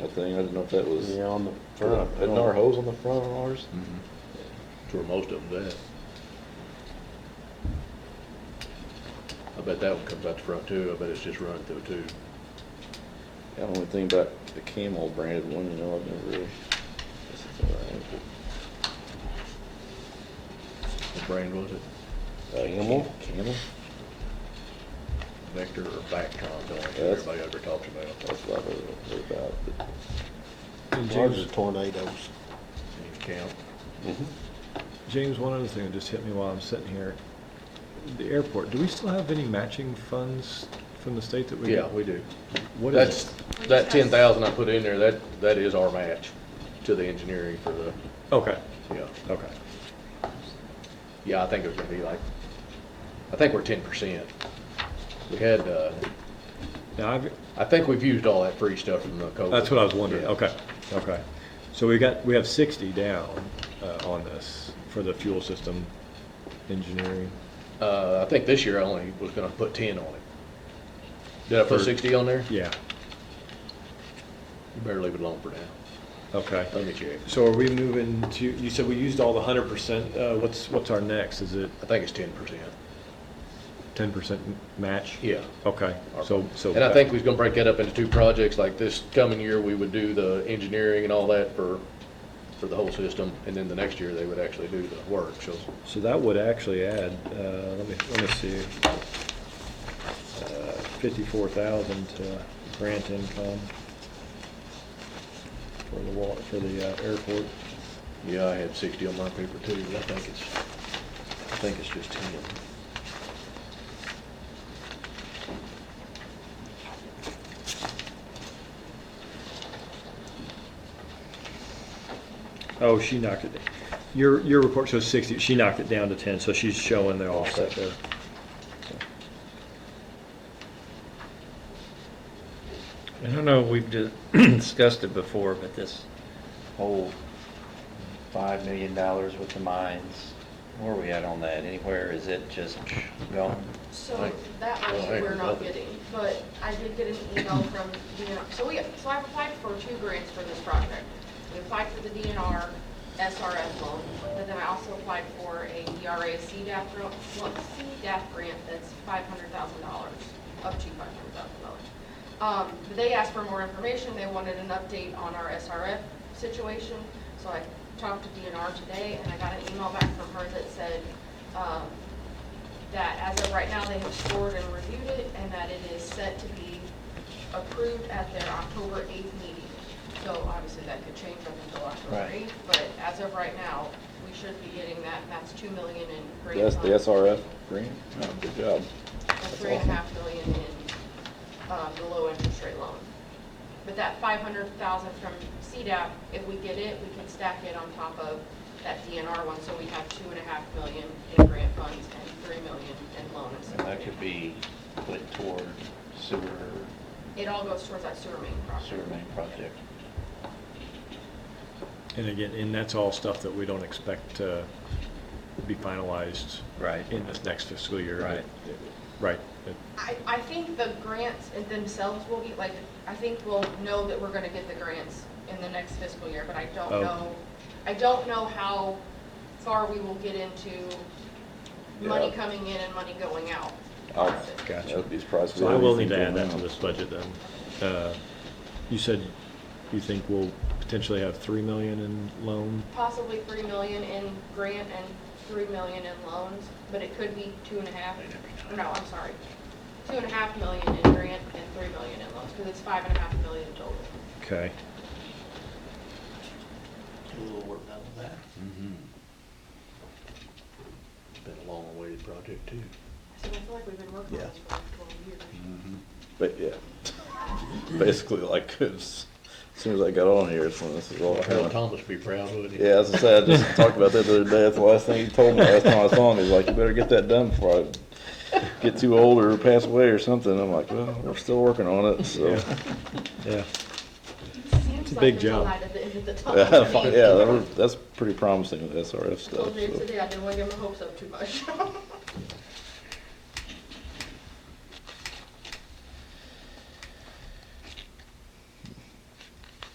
thing, I didn't know if that was, Yeah, on the front. isn't our hose on the front of ours? That's where Mm-hmm. most of them's at. I bet that one comes out the front too, I bet it's just run through too. Yeah, The only thing about the Camel branded one, you know, I've never really. guess it's all right. What brand was it? Camel? Camel? Vector or Bactron, don't like That's- everybody ever talks about. That's what I've heard about, but. James, Ours is tornadoes. Any count? James, one other thing that just hit me while I'm sitting here. The airport, do we still have any matching funds from the state that we? Yeah, we do. What is That's, it? that ten thousand I put in there, that, that is our match to the engineering for the, Okay, yeah. okay. Yeah, I think it was gonna be like, I think we're ten percent. We had, uh, Now, I've, I think we've used all that free stuff from the COVID. that's what I was wondering. Yeah. Okay, okay. So we got, we have sixty down, uh, on this for the fuel system engineering. Uh, I think this year I only was gonna put ten on it. Did I put For- sixty on there? Yeah, You better leave it alone for now. okay. Let me check. So are we moving to, you said we used all the hundred percent, uh, what's, what's our next? Is it I think it's ten percent. ten percent match? Yeah. Okay, so, so. And I think we was gonna break that up into two projects, like this coming year, we would do the engineering and all that for, for the whole system, and then the next year, they would actually do the work, so. So that would actually add, uh, let me, let me see, Uh, fifty-four thousand to grant income for the wa, for the uh, airport. Yeah, I had sixty on my paper too, but I think it's, I think it's just ten. Oh, she knocked it, your, your report shows sixty, she knocked it down to ten, so she's showing the offset there. I don't know, if we've di- discussed it before, but this whole five million dollars with the mines, where are we at on that? Anywhere, is it just gone? So Right. that Well, hey, one we're not nothing. getting, but I did get an email from DNR. So we, so I've applied for two grants for this project. We applied for the DNR SRF loan, but then I also applied for a DRA CDAP, gr- well, CDAP grant that's five hundred thousand dollars, up to five hundred thousand dollars. Um, but they asked for more information, they wanted an update on our SRF situation, so I talked to DNR today, and I got an email back from her that said, um, that as of right now, they have scored and reviewed it, and that it is set to be approved at their October 8th meeting. So obviously, that could change up until October Right. 8th, but as of right now, we should be getting that, and that's 2 million in grant That's the funds, SRF grant? Oh, Good job. and three and a half million in uh, the low interest rate loan. But that 500,000 from CDAP, if we get it, we can stack it on top of that DNR one, so we have 2.5 million in grant funds and 3 million in loan. and And that could be put toward sewer, It all goes towards that sewer main project. sewer main project. And again, and that's all stuff that we don't expect to be finalized Right. in this next fiscal year. Right. Right. I, I think the grants themselves will be, like, I think we'll know that we're gonna get the grants in the next fiscal year, but I don't Oh. know, I don't know how far we will get into money Yeah. coming in and money going out. I'll- Gotcha. I'd be surprised. if So we I had will need to add anything that to going this budget then. Uh, You said you think we'll potentially have 3 million in loan? Possibly three million in grant and three million in loans, but it could be two and a half, no, I'm sorry. Two and a half million in grant and three million in loans, because it's five and a half million total. Okay. Do a little work out of that. It's been a long awaited project too. So I feel like we've been working on this for like twelve years. But yeah, basically like, 'cause as soon as I got on here, it's when this is all. Harold Thomas would be proud, wouldn't he? Yeah, as I said, I just talked about that the other day. That's the last thing he told me last time I saw him. He's like, you better get that done before I get too old or pass away or something. I'm like, well, we're still working on it, so. Yeah. Seems a like big there's a job. light at the end of the Yeah, tunnel. that was- that's pretty promising with SRF stuff. Told Dave so. today I didn't want to get my hopes up too much.